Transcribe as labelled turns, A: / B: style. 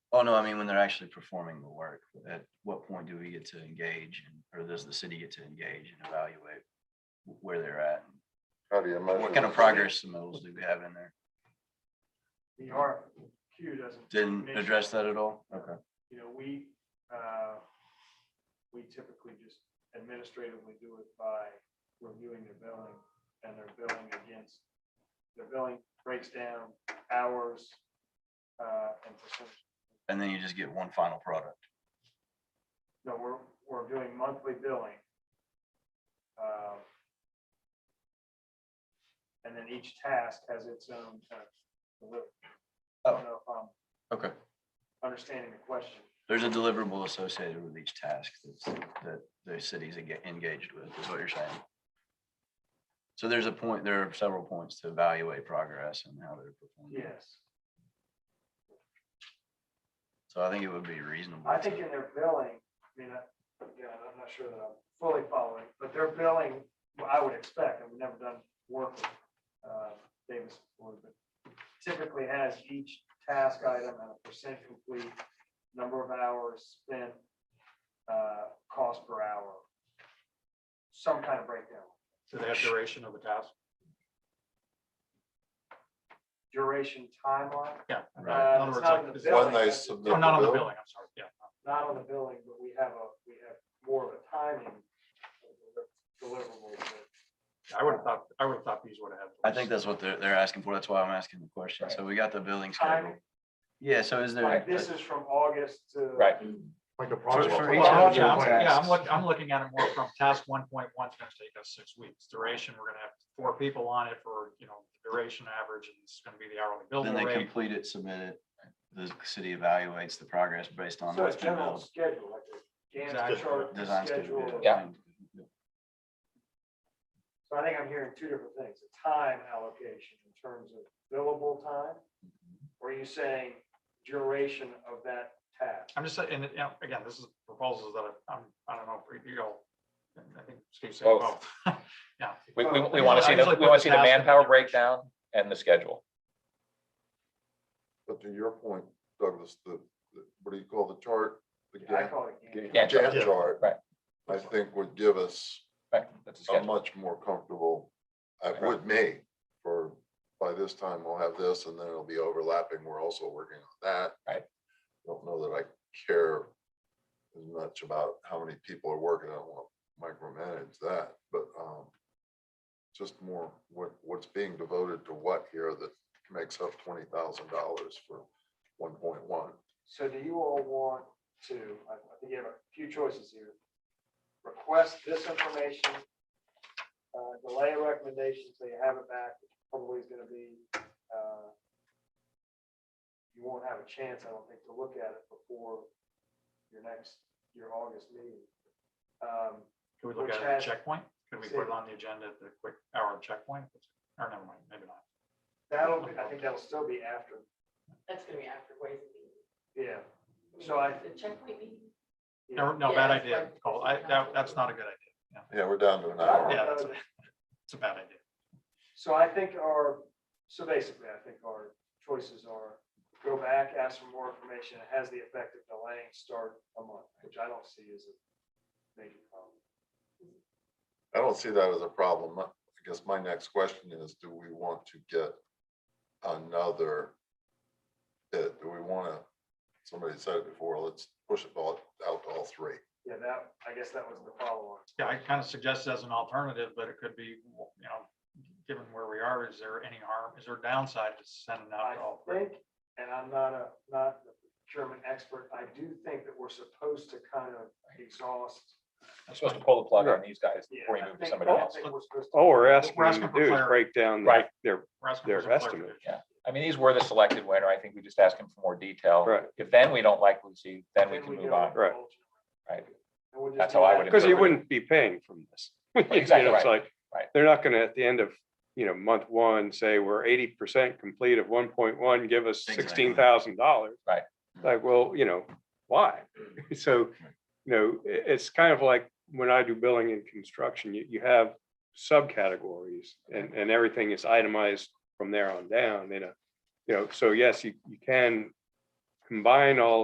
A: Well, Oh, no, I mean, when they're actually performing the work, at what point do we get to engage and, or does the city get to engage and evaluate wh- where they're at?
B: How do you measure?
A: What kind of progress the mills do we have in there?
C: The RFQ doesn't.
A: Didn't
C: mention-
A: address that at all? Okay.
C: You know, we, uh, we typically just administratively do it by reviewing their billing and their billing against, their billing breaks down hours, uh, and percentage.
A: And then you just get one final product.
C: No, we're, we're doing monthly billing. Um, And then each task has its own kind of delivery. I
A: Oh.
C: don't know if I'm
A: Okay.
C: understanding the question.
A: There's a deliverable associated with each task that's, that the city's enga- engaged with, is what you're saying. So there's a point, there are several points to evaluate progress and how they're performing.
C: Yes.
A: So I think it would be reasonable.
C: I think
A: to-
C: in their billing, I mean, I- again, I'm not sure that I'm fully following, but their billing, well, I would expect, and we've never done work with uh, Davis before, but typically has each task item and a percent complete, number of hours spent, uh, cost per hour, some kind of breakdown,
D: Do they have duration of the task?
C: duration, timeline.
D: Yeah.
A: Right.
D: In
C: Uh,
D: other
C: it's
D: words,
C: not
D: like,
C: in the
D: is-
C: bill.
B: When they
D: Oh,
B: submit.
D: not on the
B: bill?
D: billing, I'm sorry, yeah.
C: not on the billing, but we have a, we have more of a timing deliverable that
D: I would have thought, I would have thought these would have.
A: I think that's what they're, they're asking for. That's why I'm asking the question. So we got the billing schedule.
C: timing,
A: Yeah, so is there?
C: like this is from August to.
E: Right.
B: Like a
A: For-
B: project.
A: for
D: Well,
A: each of
D: yeah,
A: the
D: I'm, yeah, I'm
A: tasks.
D: looking, I'm looking at it more from task one point one, it's gonna take us six weeks. Duration, we're gonna have four people on it for, you know, duration average, and it's gonna be the hourly
A: Then they
D: billable rate.
A: complete it, submit it. The city evaluates the progress based on
C: So
A: what's
C: it's
A: been
C: general
A: built.
C: schedule, like a Gantt
D: Exactly.
C: chart
A: Design
C: schedule.
A: schedule.
C: So I think I'm hearing two different things, a time allocation in terms of billable time,
A: Mm-hmm.
C: or are you saying duration of that task?
D: I'm just saying, and, you know, again, this is proposals that I- I'm, I don't know, if you go, I think Steve said
E: Both.
D: both. Yeah,
E: We, we, we
D: Yeah,
E: want
D: I
E: to see, the
D: usually
E: we
D: put
E: want
D: the
E: to see the
D: task in
E: manpower
D: the-
E: breakdown and the schedule.
B: But to your point, Douglas, the, the- what do you call the chart? The
C: I
B: Gantt-
C: call it Gantt.
B: Gantt
E: Gantt chart.
B: Gantt chart.
E: Right.
B: I think would give us
E: Right, that's
F: Oh,
B: a
E: the schedule.
B: much more comfortable, uh,
E: Right.
B: would me, for, by this time we'll have this and then it'll be overlapping. We're also working on that.
E: Right.
B: Don't know that I care as much about how many people are working. I don't want to micromanage that, but, um, just more what, what's being devoted to what here that makes up twenty thousand dollars for one point one.
C: So do you all want to, I I think you have a few choices here. Request this information, uh, delay a recommendation so you have it back, which probably is gonna be, uh, you won't have a chance, I don't think, to look at it before your next, your August meeting. Um,
D: Could we look
C: Which
D: at it at
C: has-
D: checkpoint? Could we put it on the agenda at the quick hour of checkpoint? Or never mind, maybe not.
C: That'll, be- I think that'll still be after,
G: That's gonna be after Wednesday.
C: yeah. So I-
G: The checkpoint meeting?
C: yeah.
D: No, no, bad
G: Yeah, it's
D: idea,
G: like-
D: Cole. I, that, that's not a good idea.
B: Yeah, we're down to an
C: But I
B: hour.
C: don't
D: Yeah,
C: know
D: that's-
C: that-
D: It's a bad idea.
C: So I think our, so basically, I think our choices are go back, ask for more information, it has the effect of delaying start a month, which I don't see as a major problem.
B: I don't see that as a problem. My- I guess my next question is, do we want to get another? bid? do we want to, somebody said it before, let's push it all out to all three.
C: Yeah, that, I guess that was the follow-on.
D: Yeah, I kind of suggest it as an alternative, but it could be, you know, given where we are, is there any harm, is there downside to sending
C: I
D: out all? three?
C: think, and I'm not a, not a procurement expert, I do think that we're supposed to kind of exhaust.
E: You're supposed to pull the plug on these guys
C: yeah,
E: before you
C: I
E: move to
C: think-
E: somebody
C: I
E: else.
C: think we're supposed to-
F: All Oh, we're
D: We're
F: asking you
D: asking
F: to
D: for
F: do is
D: clar-
F: break down
E: Right.
F: their,
D: We're asking for
F: their
D: some
F: estimate.
D: clarification.
E: I mean, these were the selected winner. I think we just ask him for more detail.
F: Right.
E: If then we don't like Lucy, then we
C: Then
E: can
C: go
E: move on.
C: with
F: Right.
C: Vulcan.
E: Right.
C: And we'll just
E: That's
C: do
E: how I
C: that.
E: would
F: because you
E: interpret it.
F: wouldn't be paying from this. You know,
E: Exactly
F: it's like,
E: Right.
F: They're not gonna, at the end of, you know, month one, say, we're eighty percent complete of one point one, give us
A: Exactly.
F: sixteen thousand dollars.
E: Right.
F: Like, well, you know, why? So, you know, i- it's kind of like when I do billing and construction, you, you have subcategories and, and everything is itemized from there on down, you know. You know, so yes, you, you can combine all